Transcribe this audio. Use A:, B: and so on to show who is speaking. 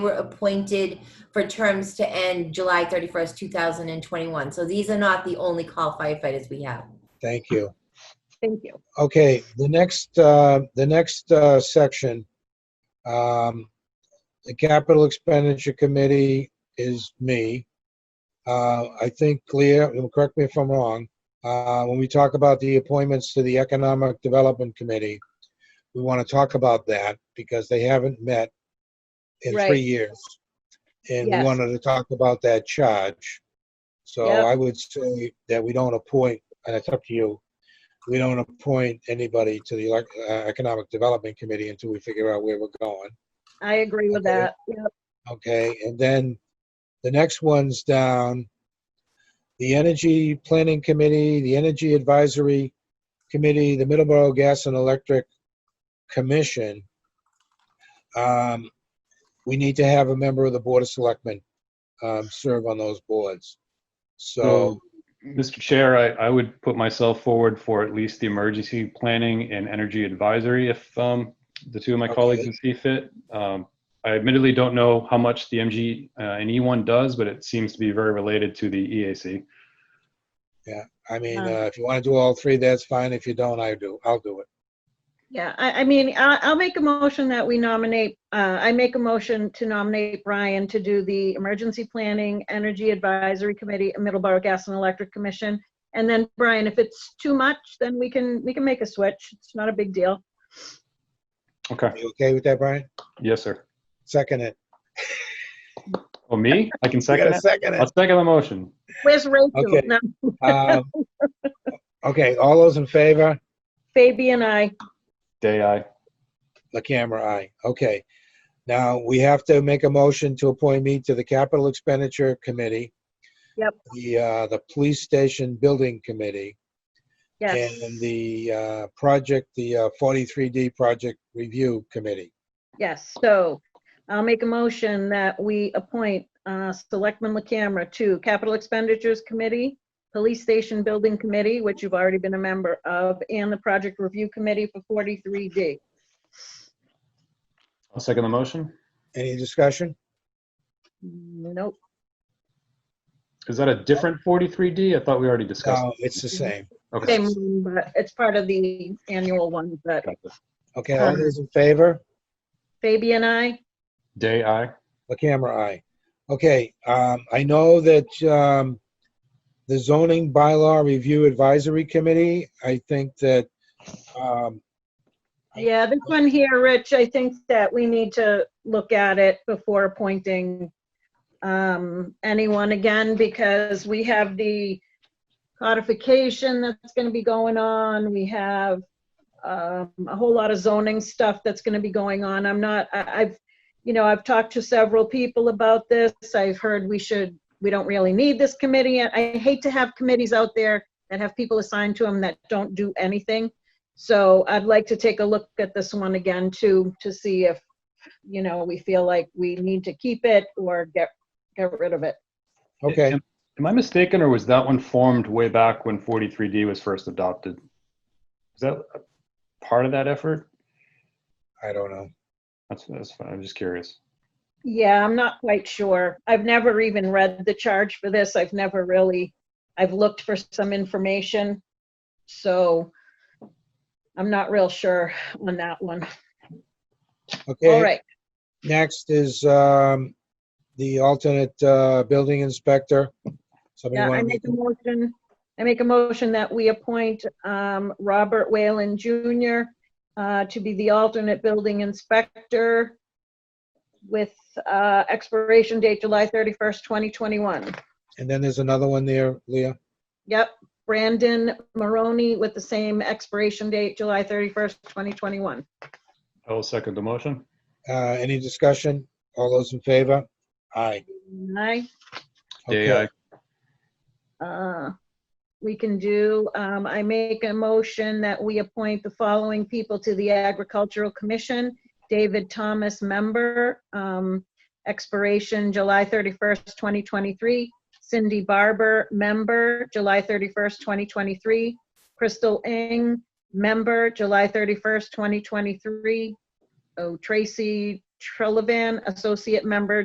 A: were appointed for terms to end July 31st, 2021. So these are not the only call firefighters we have.
B: Thank you.
C: Thank you.
B: Okay, the next, uh, the next uh, section, um, the Capital Expenditure Committee is me. Uh, I think, Leah, you'll correct me if I'm wrong, uh, when we talk about the appointments to the Economic Development Committee, we want to talk about that because they haven't met in
C: Right.
B: three years. And we
C: Yes.
B: wanted to talk about that charge. So
C: Yep.
B: I would say that we don't appoint, and it's up to you, we don't appoint anybody to the elec- uh, Economic Development Committee until we figure out where we're going,
C: I agree with
B: Okay.
C: that. Yep.
B: okay? And then the next one's down, the Energy Planning Committee, the Energy Advisory Committee, the Middleborough Gas and Electric Commission. Um, We need to have a member of the Board of Selectmen um, serve on those boards. So,
D: Mr. Chair, I, I would put myself forward for at least the emergency planning and energy advisory if um, the two of my
B: Okay.
D: colleagues would see fit. Um, I admittedly don't know how much the MG uh, and E1 does, but it seems to be very related to the E EAC.
B: I mean,
C: Um,
B: uh, if you want to do all three, that's fine. If you don't, I do, I'll do it.
C: Yeah, I, I mean, I, I'll make a motion that we nominate, uh, I make a motion to nominate Brian to do the Emergency Planning, Energy Advisory Committee, and Middleborough Gas and Electric Commission. And then, Brian, if it's too much, then we can, we can make a switch. It's not a big deal.
D: Okay,
B: You okay with that, Brian?
D: yes, sir.
B: Second it.
D: Oh, me? I can
B: You
D: second
B: gotta
D: it?
B: second
D: I'll second the motion.
C: Where's Rachel?
B: Okay.
C: No,
B: it. Um, Okay, all those in favor?
C: Fabi and I,
D: Day I.
B: The camera, aye. Okay. Now, we have to make a motion to appoint me to the Capital Expenditure Committee.
C: Yep.
B: The, uh, the Police Station Building Committee.
C: yes,
B: And the, uh, project, the uh, 43D Project Review Committee.
C: yes. So I'll make a motion that we appoint, uh, Selectman LaCamera to Capital Expenditures Committee, Police Station Building Committee, which you've already been a member of, and the Project Review Committee for 43D.
D: I'll second the motion.
B: Any discussion?
C: Nope,
D: Is that a different 43D? I thought we already discussed.
B: No, Oh, it's the
C: Mm-hmm.
B: same.
D: Okay.
C: same, one, but it's part of the annual one, but
D: Got this.
B: Okay, all those in favor?
C: Fabi and I,
D: Day I.
B: The camera, aye. Okay, um, I know that, um, the zoning bylaw review advisory committee, I think that, um,
C: yeah, this one here, Rich, I think that we need to look at it before appointing um, anyone again, because we have the codification that's gonna be going on, we have um, a whole lot of zoning stuff that's gonna be going on. I'm not, I, I've, you know, I've talked to several people about this. I've heard we should, we don't really need this committee. And I hate to have committees out there that have people assigned to them that don't do anything. So I'd like to take a look at this one again too, to see if, you know, we feel like we need to keep it or get, get rid of it.
B: okay,
D: Am am I mistaken, or was that one formed way back when 43D was first adopted? Is that a part of that effort?
B: I don't know.
D: That's, that's fine. I'm just curious.
C: Yeah, I'm not quite sure. I've never even read the charge for this. I've never really, I've looked for some information. So I'm not real sure on that one. All
B: Okay,
C: right,
B: next is, um, the alternate, uh, building inspector. Somebody
C: yeah, I
B: want
C: make a motion, I make a motion that we appoint um, Robert Whalen Jr. uh, to be the alternate building inspector with uh, expiration date July 31st, 2021.
B: and then there's another one there, Leah.
C: Yep, Brandon Maroney with the same expiration date, July 31st, 2021.
D: I will second the motion.
B: Uh, any discussion? All those in favor? Aye.
C: Aye.
D: Day
B: Okay.
D: I.
C: Uh, We can do, um, I make a motion that we appoint the following people to the Agricultural Commission. David Thomas, member, um, expiration July 31st, 2023. Cindy Barber, member, July 31st, 2023. Crystal Ing, member, July 31st, 2023. Oh, Tracy Trillvan, Associate Member